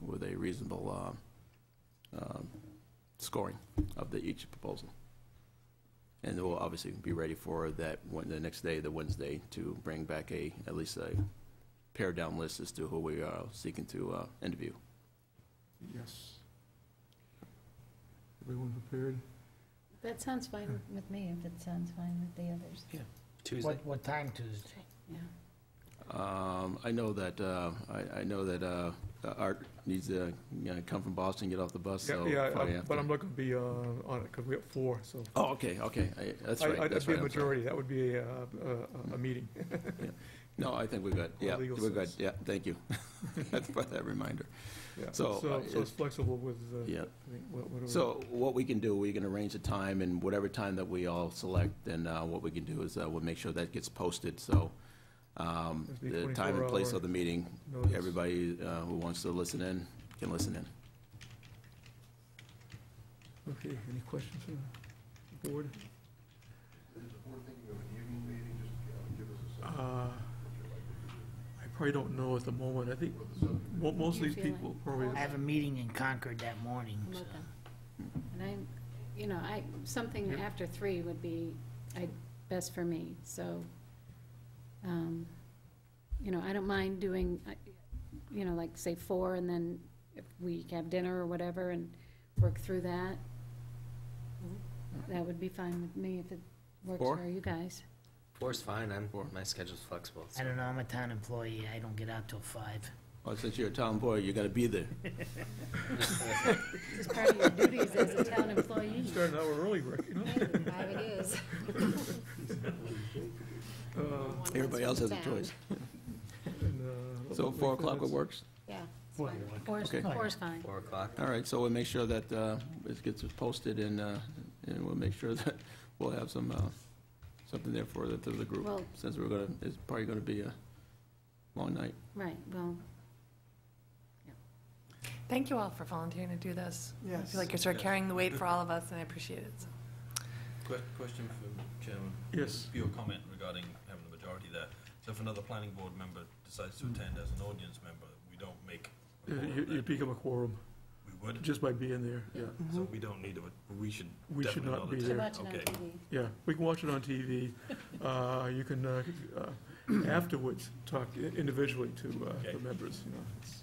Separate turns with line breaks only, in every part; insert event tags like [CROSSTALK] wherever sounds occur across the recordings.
reasonable um, um, scoring of the, each proposal. And we'll obviously be ready for that, one- the next day, the Wednesday, to bring back a, at least a pared-down list as to who we are seeking to uh, interview.
Yes. Everyone prepared?
That sounds fine with me, if it sounds fine with the others,
What, what time Tuesday?
yeah.
Um, I know that, uh, I, I know that uh, Art needs to, you know, come from Boston, get off the bus, so.
Yeah,
probably
I'm-
have
but
to-
I'm not going to be uh, on it because we have four, so.
Oh, okay, okay, I- that's
I-
right,
I'd-
that's
I'd
right.
be a
I'm sorry.
majority, that would be a, uh, a- a, a meeting.
No, I think we're good,
Or
yeah,
legal
we're good,
sense.
yeah, thank you. [LAUGHS] That's for that reminder,
Yeah.
So, uh,
So it's flexible with, uh,
yeah.
I think, wha- whatever.
So what we can do, we can arrange a time, and whatever time that we all select, then uh, what we can do is uh, we'll make sure that gets posted, so um,
It'll be
the time and place
24 hour
of the meeting,
notice.
everybody uh, who wants to listen in can listen in.
Okay, any questions from the board? Uh, I probably don't know at the moment. I think mo- most of
You
these
feel
people
like-
probably,
I have a meeting in Concord that morning,
I'm
so.
open. And I'm, you know, I, something
Yeah.
after three would be, I, best for me, so, um, you know, I don't mind doing, I- you know, like, say, four, and then if we have dinner or whatever, and work through that. That would be fine with me if it works
Mm-hmm. Four?
for you guys.
Four's fine. I'm, my schedule's flexible.
I don't know, I'm a town employee, I don't get out till five.
Well, Oh, since you're a town boy, you gotta be there.
It's part of your duties as a town employee.
you start an hour early, Rick, you know?
Five it is.
Uh,
Everybody else has a choice.
and, uh,
So
hopefully
four o'clock, it
that's-
works?
Yeah.
Four o'clock.
Four's,
Okay.
four's fine.
Four o'clock.
All right, so we'll make sure that uh, it gets posted, and uh, and we'll make sure [LAUGHS] that we'll have some, uh, something there for the, to the group,
Well-
since we're gonna, it's probably gonna be a long night.
Right, well,
Thank you all for volunteering to do this. I
Yes.
feel like you're sort of carrying the weight for all of us, and I appreciate it. so.
Que- Question for Chairman.
Yes.
Your comment regarding having the majority there. So if another planning board member decides to attend as an audience member, we don't make. a
Yeah,
quorum
You,
then.
you become a quorum
We would,
just by being there, yeah.
so we don't need to, we should
We should
definitely
not
not
be
attend.
to
there.
watch it on
Okay.
TV.
Yeah, we can watch it on
[LAUGHS]
TV. Uh, You can, uh, uh, afterwards, talk i- individually to uh,
Okay.
the members, you know. it's-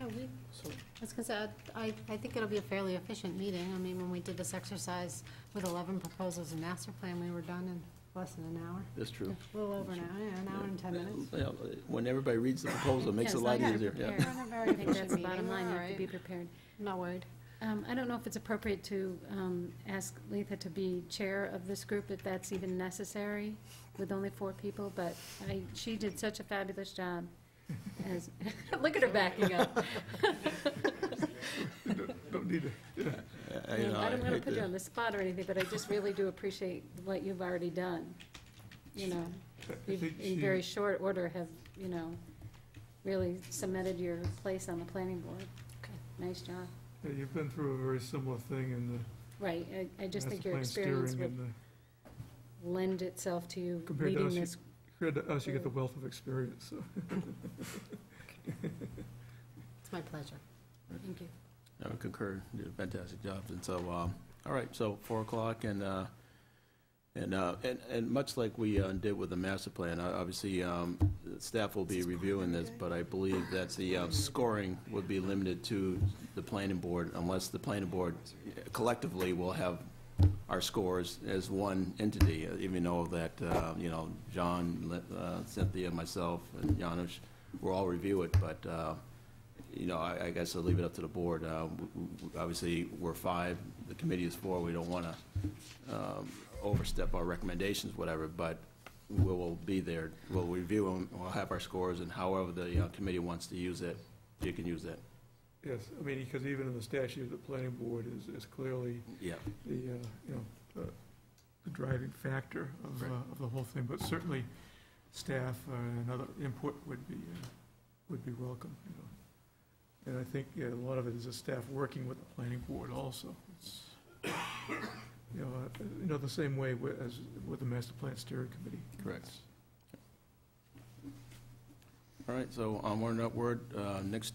Yeah, Oh, we, I was gonna say, I, I think it'll be a fairly efficient meeting. I mean, when we did this exercise with eleven proposals and master plan, we were done in less than an hour.
That's true.
A little over an hour, yeah, an hour and ten minutes.
Yeah, When everybody reads the proposal, it makes it a
Yes,
lot
I gotta
easier, yeah.
prepare. I think that's the bottom
meeting,
line, you
all
have to
[LAUGHS] right.
be prepared.
Not worried.
Um, I don't know if it's appropriate to um, ask Letha to be chair of this group, if that's even necessary, with only four people, but I, she did such a
[LAUGHS]
fabulous job as, [LAUGHS] look at her backing up.
Don't need to,
I- I- you know,
I
I
don't want to
hate
put you
to-
on the spot or anything, but I just really do appreciate what you've already done, you know.
I
You've,
think
in
she-
very short order, have, you know, really cemented your place on the planning board. Nice job.
yeah, You've been through a very similar thing in
Right, I, I
the
just think
master
your
plan
experience
steering
would
and the,
lend itself to you
Compared to
leading
us, you-
this.
compared to us, you
Mm.
get the wealth of experience, so.
It's my pleasure.
Thank you.
I would concur, you did a fantastic job, and so, um, all right, so four o'clock, and, uh, and, uh, and, and much like we uh, did with the master plan, uh, obviously, um, staff will be reviewing this, but I believe that the uh, scoring would be limited to the planning board, unless the planning board uh, collectively will have our scores as one entity, uh, even though that, uh, you know, John, uh, Cynthia, myself, and Janusz, we'll all review it, but, uh, you know, I, I guess I'll leave it up to the board. Uh, w- w- Obviously, we're five, the committee is four, we don't want to overstep our recommendations, whatever, but we will be there, we'll review them, we'll have our scores, and however the uh, committee wants to use it, you can use it.
Yes, I mean, because even in the statute, the planning board is, is clearly
Yeah.
the, uh, you know, uh, the driving factor of, uh,
Right.
of the whole thing, but certainly staff uh, and other input would be, uh, would be welcome, you know. And I think yeah, a lot of it is the staff working with the planning board also. It's, You know, uh, you know, the same way wi- as with the master plan steering committee.
Correct. All right, so onward and upward, Uh, next